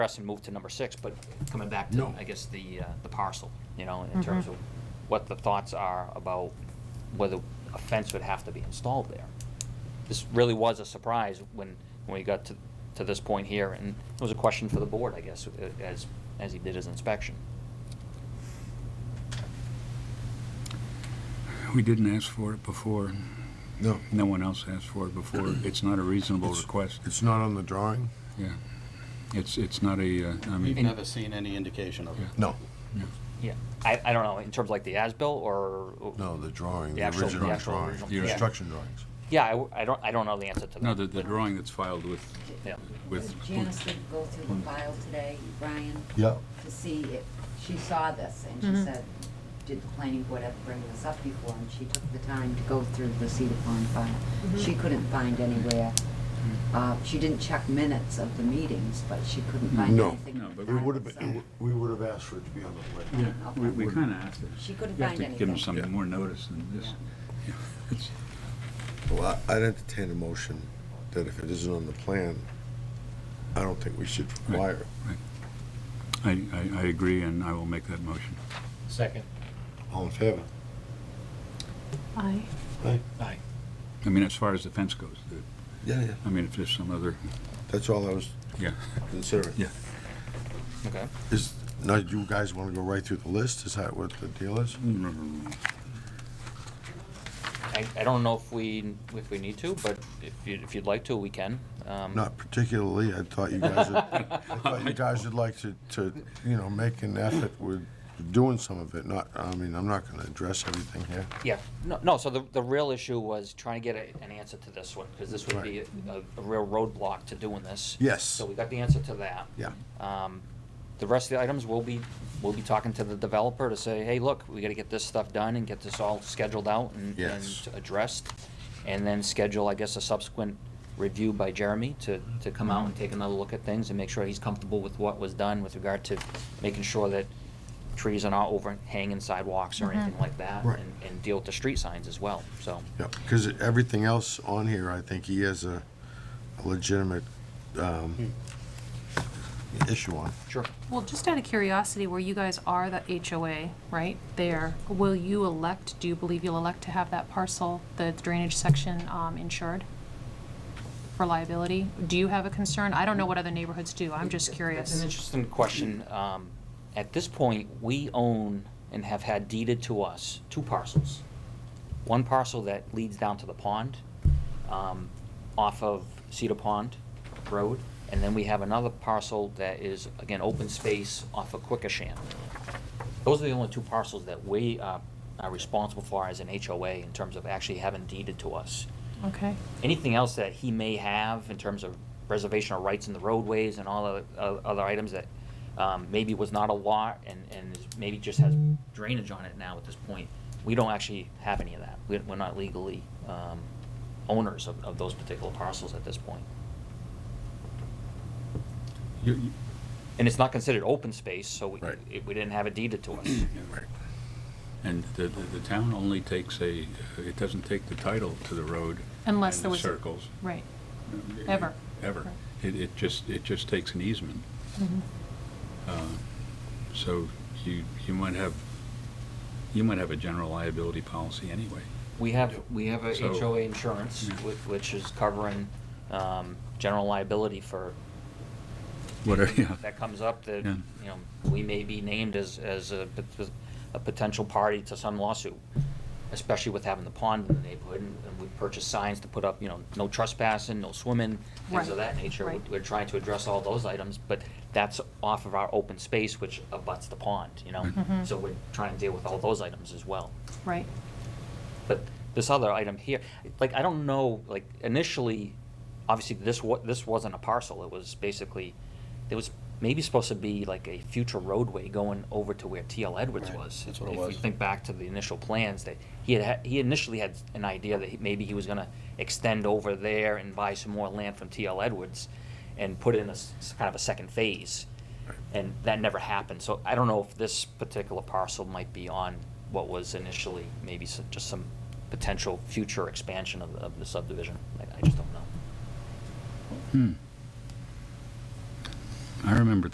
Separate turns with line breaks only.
press and move to number six, but coming back to,
No.
I guess, the, uh, the parcel, you know, in terms of what the thoughts are about whether a fence would have to be installed there. This really was a surprise when, when we got to, to this point here, and it was a question for the board, I guess, uh, as, as he did his inspection.
We didn't ask for it before.
No,
No one else asked for it before. It's not a reasonable request.
it's not on the drawing?
Yeah. It's, it's not a, uh, I
We've
mean,
never seen any indication of it.
No,
Yeah, I, I don't know, in terms of like the as-built or?
no, the drawing,
The
the
actual- the
original
actual
drawing,
original-
the
yeah.
construction drawings.
Yeah, I w- I, don't, I don't know the answer to that.
no, the, the drawing that's filed with,
Yeah.
with,
Janice did go through the file today, Brian,
Yeah.
to see if, she saw this and she said, did the planning board ever bring this up before? And she took the time to go through the Cedar Pond file. She couldn't find anywhere, uh, she didn't check minutes of the meetings, but she couldn't find
No.
anything.
No, but
We
on
would
it,
have,
so-
been. we would have asked for it to be on the plan.
yeah, we, we kind of asked it.
She couldn't
You have
find
to give them
anything.
Yeah.
some more notice than this. Yeah, it's-
Well, I- I'd entertain a motion that if it isn't on the plan, I don't think we should require it.
I, I, I agree, and I will make that motion.
Second.
All in favor?
Aye.
Aye.
I mean, as far as the fence goes, the-
Yeah, yeah,
I mean, if there's some other,
that's all I was
yeah.
considering.
Yeah.
Okay.
Is, now, you guys want to go right through the list, is that what the deal is?
I, I don't know if we, if we need to, but if you, if you'd like to, we can. Um,
Not particularly, I thought you guys, would- I thought you guys would like to, to, you know, make an effort with doing some of it, not, I mean, I'm not gonna address everything here.
Yeah, no, no, so the, the real issue was trying to get a, an answer to this one, because this would be a, a real roadblock to doing this.
Yes.
So we got the answer to that.
Yeah.
Um, the rest of the items, we'll be, we'll be talking to the developer to say, hey, look, we gotta get this stuff done and get this all scheduled out and,
Yes.
and addressed. And then schedule, I guess, a subsequent review by Jeremy to, to come out and take another look at things and make sure he's comfortable with what was done with regard to making sure that trees are not overhanging sidewalks or anything like that.
Right.
And, and deal with the street signs as well, so.
Yeah, because everything else on here, I think he has a a legitimate um, issue on.
Sure.
Well, just out of curiosity, where you guys are the HOA, right, there, will you elect, do you believe you'll elect to have that parcel, the drainage section, um, insured? For liability? Do you have a concern? I don't know what other neighborhoods do, I'm just
That's an
curious.
interesting question. Um, At this point, we own and have had deeded to us two parcels. One parcel that leads down to the pond, um, off of Cedar Pond Road, and then we have another parcel that is, again, open space off of Quikasham. Those are the only two parcels that we uh, are responsible for as an HOA in terms of actually having deeded to us.
Okay,
anything else that he may have in terms of reservation of rights in the roadways and all the uh, other items that um, maybe was not a lot and, and is- maybe just has drainage on it now at this point, we don't actually have any of that. We- We're not legally um, owners of, of those particular parcels at this point.
You- you-
And it's not considered open space, so we,
Right.
it- we didn't have it deeded to us.
And the, the the town only takes a, it doesn't take the title to the road.
Unless
and
there
the
was a-
Circles.
right. Ever.
Ever.
Right.
It, it just, it just takes an easement. Uh, So you, you might have, you might have a general liability policy anyway.
We have, we have a
So-
HOA insurance,
Yeah.
whi- which is covering um, general liability for
Whatever, yeah.
that comes up, that,
Yeah.
you know, we may be named as, as a, pot- a potential party to some lawsuit, especially with having the pond in the neighborhood, and and we purchase signs to put up, you know, no trespassing, no swimming, things of
Right,
that nature. We-
right.
We're trying to address all those items, but that's off of our open space, which abuts the pond, you know?
Mm-hmm.
Mhm.
So we're trying to deal with all those items as well.
Right,
But this other item here, like, I don't know, like, initially, obviously, this wa, this wasn't a parcel, it was basically, it was maybe supposed to be like a future roadway going over to where TL Edwards
Right,
was.
that's what it
If we
was.
think back to the initial plans, that he had, ha- he initially had an idea that he- maybe he was gonna extend over there and buy some more land from TL Edwards and put in a, s- s- kind of a second phase. And that never happened, so I don't know if this particular parcel might be on what was initially maybe s- just some potential future expansion of, of the subdivision. I, I just don't know.
Hmm. I remember